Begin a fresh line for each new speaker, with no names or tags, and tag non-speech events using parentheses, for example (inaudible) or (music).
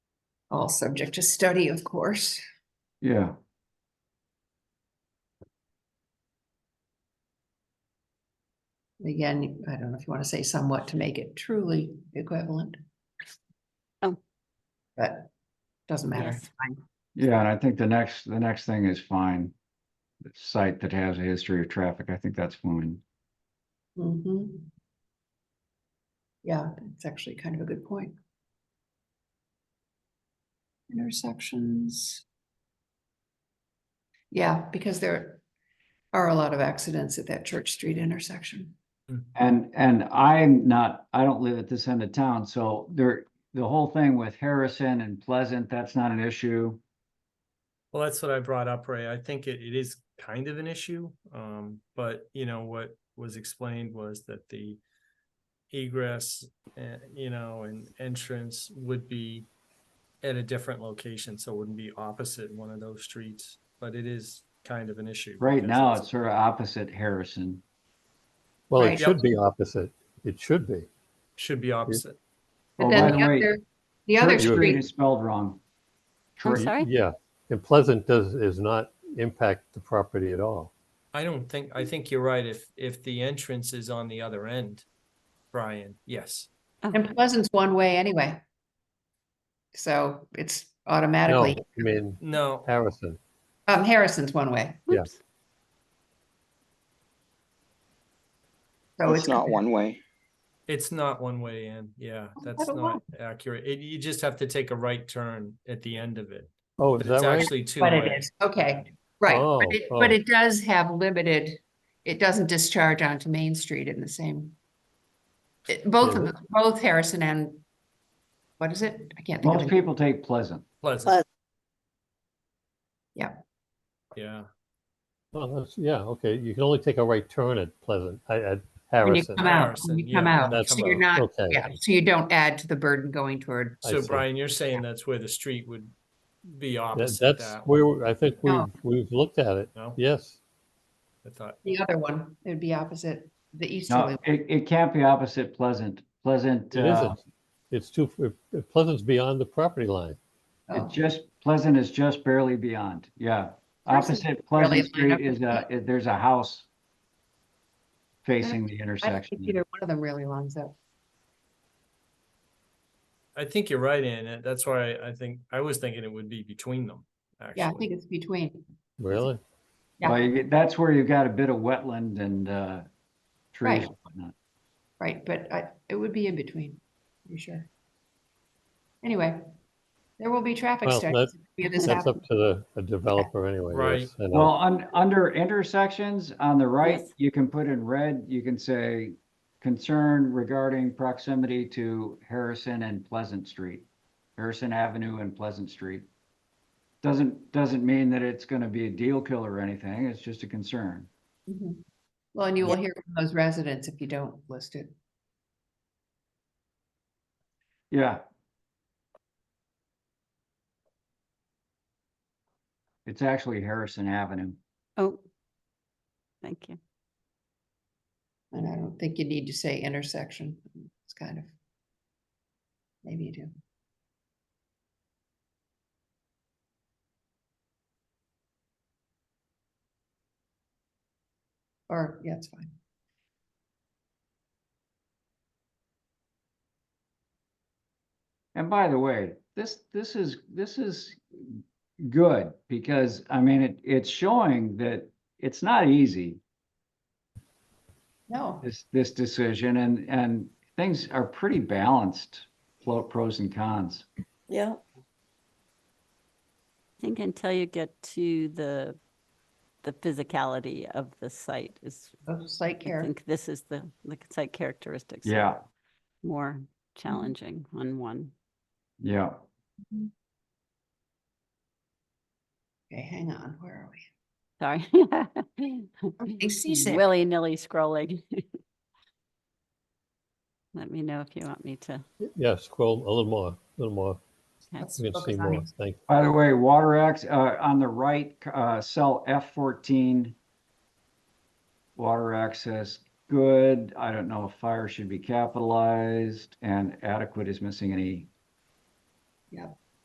all subject to study, of course.
Yeah.
Again, I don't know if you want to say somewhat to make it truly equivalent.
Oh.
But doesn't matter.
Yes.
Fine.
Yeah, and I think the next, the next thing is fine. The Site that has a history of traffic, I think that's fine.
Mhm. Yeah, that's actually kind of a good point. Intersections. Yeah, because there are a lot of accidents at that Church Street intersection.
And, and I'm not, I don't live at this end of town, so there, the whole thing with Harrison and Pleasant, that's not an issue.
Well, that's what I brought up, Ray. I think it, it is kind of an issue, um, but you know, what was explained was that the egress, eh, you know, and entrance would be at a different location, so it wouldn't be opposite one of those streets, but it is kind of an issue.
Right
because
now, it's sort of opposite Harrison.
Well,
Right.
it
Yep.
should be opposite. It should be.
Should be opposite.
But
Oh, by
then
the
the
way,
other, the other
Church Street
street
It's spelled wrong.
I'm
Church-
sorry?
Yeah, and Pleasant does, is not impact the property at all.
I don't think, I think you're right. If, if the entrance is on the other end, Brian, yes.
Oh,
And Pleasant's one way anyway. So it's
No, I
automatically,
mean
No,
Harrison.
um, Harrison's one way,
yeah.
oops.
so
it's
it's.
not one way.
It's not one way in, yeah, that's
Oh, don't
not accurate. It, you just have to take a right turn at the end of it.
Oh,
But
is
it's
that right?
actually two
But it
way.
is, okay, right,
Oh,
but it,
oh.
but it does have limited, it doesn't discharge onto Main Street in the same. it- Both of,
Yeah.
them- both Harrison and, what is it? I can't think
Most
of it.
people take Pleasant.
Pleasant.
Pleasant.
Yeah.
Yeah,
Oh, that's, yeah, okay. You can only take a right turn at Pleasant, I- at
When you
Harrison.
come out,
Harrison,
when you come
yeah, when
out,
you
so
come
you're
out,
not,
okay.
yeah, so you don't add to the burden going toward,
I
so
see.
Brian, you're saying that's where the street would be
That-
opposite
That's
that,
where, I think we've,
No.
we've looked at it.
no?
Yes.
I thought,
the other one, it would be opposite the easterly.
No, it, it can't be opposite Pleasant. Pleasant,
It
uh,
isn't. It's too, Pleasant's beyond the property line.
Oh.
It just, Pleasant is just barely beyond, yeah.
Pleasant's barely
Opposite Pleasant
lined up
Street is a,
with
is- there's a house facing the
I don't think
intersection.
either one of them really lines up.
I think you're right in it. That's why I think, I was thinking it would be between them,
Yeah, I think
actually.
it's between.
Really?
Yeah.
Well, you get- that's where you've got a bit of wetland and, uh, trees
Right.
and whatnot.
Right, but I, it would be in between, I'm sure. Anyway, there will be traffic
Well,
studies. if any of this
That's up
happens.
to the the developer anyway.
Right.
yes, and, uh,
Well, un, under intersections on the right,
Yes.
you can put in red, you can say concern regarding proximity to Harrison and Pleasant Street. Harrison Avenue and Pleasant Street. Doesn't, doesn't mean that it's gonna be a deal killer or anything, it's just a concern.
Mhm. Well, and you will hear from those residents if you don't list it.
Yeah. It's actually Harrison Avenue.
Oh. Thank you.
And I don't think you need to say intersection. It's kind of. Maybe you do. Or, yeah, it's fine.
And by the way, this, this is, this is good because, I mean, it, it's showing that it's not easy,
No,
this, this decision and, and things are pretty balanced, pro- pros and cons.
Yeah,
I think until you get to the, the physicality of the site is,
no slight
I
care.
think this is the, the site characteristics. are
Yeah,
More challenging on one.
yeah.
Okay, hang on, where are we?
Sorry.
I
(laughs)
see Sam.
Willy-nilly scrolling. (laughs) Let me know if you want me to.
Yeah, scroll a little more, a little more.
okay.
Let's
You can
focus
see
on
more.
these.
Thank
By the way, water acts, uh, on the right, uh, cell F fourteen. Water access, good. I don't know if fire should be capitalized and adequate is missing an E.
Yep.